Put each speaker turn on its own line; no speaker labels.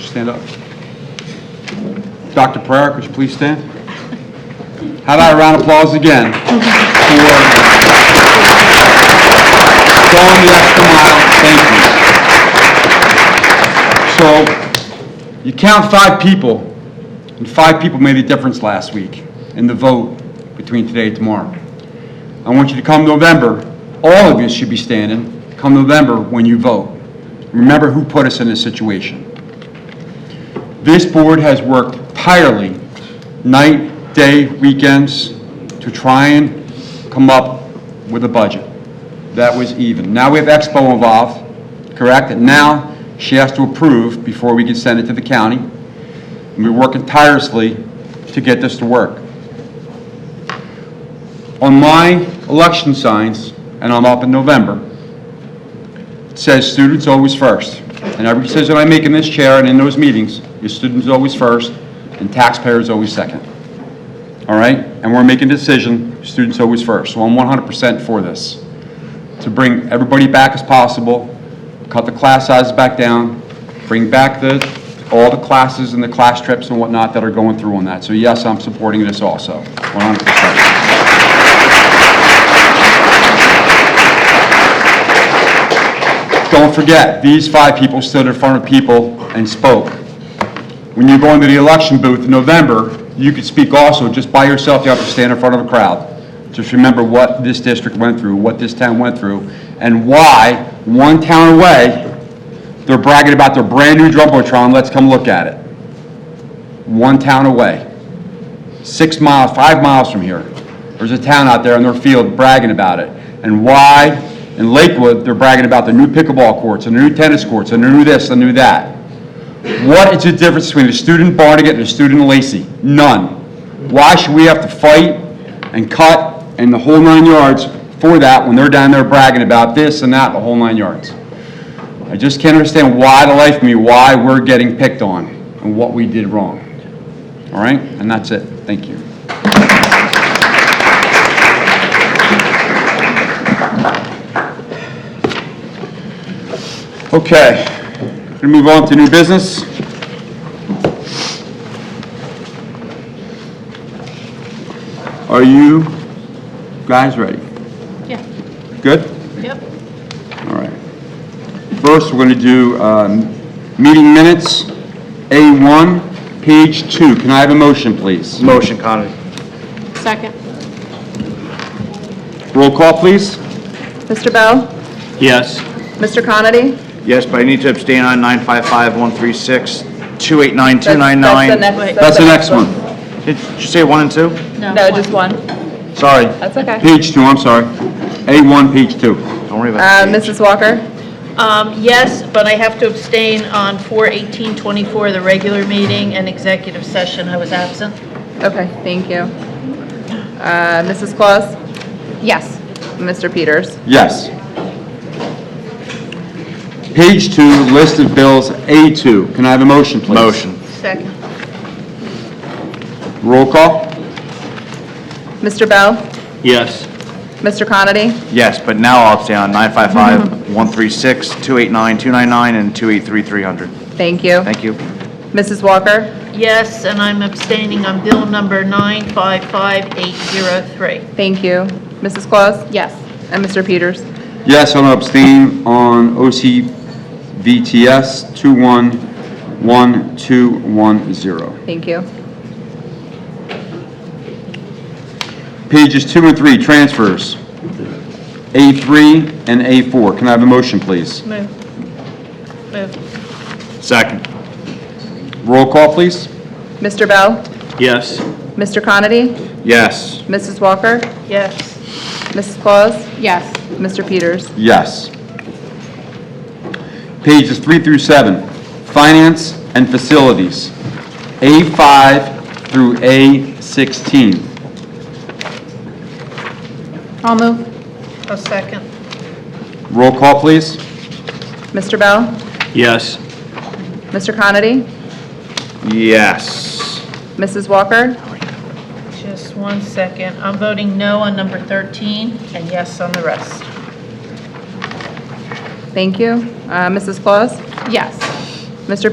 stand up. Dr. Pereira, could you please stand? How about a round of applause again for going the extra mile? Thank you. So you count five people, and five people made a difference last week in the vote between today and tomorrow. I want you to come November, all of you should be standing, come November when you vote. Remember who put us in this situation. This board has worked tirelessly, night, day, weekends, to try and come up with a budget that was even. Now we have Expo involved, correct? And now she has to approve before we can send it to the county. And we're working tirelessly to get this to work on my election signs, and I'm up in November, it says students always first. And every decision I make in this chair and in those meetings, your students always first, and taxpayers always second. All right? And we're making a decision, students always first. So I'm 100% for this. To bring everybody back as possible, cut the class sizes back down, bring back the, all the classes and the class trips and whatnot that are going through on that. So yes, I'm supporting this also, 100%. Don't forget, these five people stood in front of people and spoke. When you go into the election booth in November, you could speak also, just by yourself, you have to stand in front of a crowd. Just remember what this district went through, what this town went through, and why, one town away, they're bragging about their brand-new Jumbotron, let's come look at it. One town away six miles, five miles from here. There's a town out there in their field bragging about it. And why, in Lakewood, they're bragging about the new pickleball courts and the new tennis courts and the new this and the new that. What is the difference between a student Barnegat and a student Lacey? None. Why should we have to fight and cut and the whole nine yards for that when they're down there bragging about this and that, the whole nine yards? I just can't understand why the life of me, why we're getting picked on and what we did wrong. All right, and that's it. Thank you. Okay, we move on to new business. Are you guys ready?
Yeah,
Good?
yep.
All right. First, we're going to do um, meeting minutes, A1, page 2. Can I have a motion, please?
Motion, Conley.
Second.
Roll call, please.
Mr. Bell?
Yes.
Mr. Conity?
Yes, but I need to abstain on 955-136, 289,
That's the
299.
next.
That's the next one.
Did you say 1 and 2?
No, just one.
Sorry,
That's okay.
Page 2, I'm sorry. A1, page 2.
don't worry
Uh,
about it.
Mrs. Walker?
Um, yes, but I have to abstain on 4/18/24, the regular meeting and executive session. I was absent.
Okay, thank you. Uh, Mrs. Claus? Yes. Mr. Peters?
Yes. Page 2, list of bills, A2. Can I have a motion,
Uh,
please?
Motion.
Second.
Roll call?
Mr. Bell?
Yes.
Mr. Conity?
Yes, but now I'll abstain on 955-136, 289, 299, and 283, 300.
Thank you.
Thank you.
Mrs. Walker?
Yes, and I'm abstaining on bill number 955803.
Thank you. Mrs. Claus? Yes. And Mr. Peters?
Yes, I'm abstain on OCVTS 211210.
Thank you.
Pages two and three, transfers. A3 and A4. Can I have a motion, please?
Move. Move.
Second.
Roll call, please.
Mr. Bell?
Yes.
Mr. Conity?
Yes.
Mrs. Walker?
Yes.
Mrs. Claus? Yes. Mr. Peters?
Yes. Pages three through seven, finance and facilities. A5 through A16.
I'll move.
A second.
Roll call, please.
Mr. Bell?
Yes.
Mr. Conity?
Yes.
Mrs. Walker?
Just one second. I'm voting no on number 13 and yes on the rest.
Thank you. Uh, Mrs. Claus? Yes. Mr.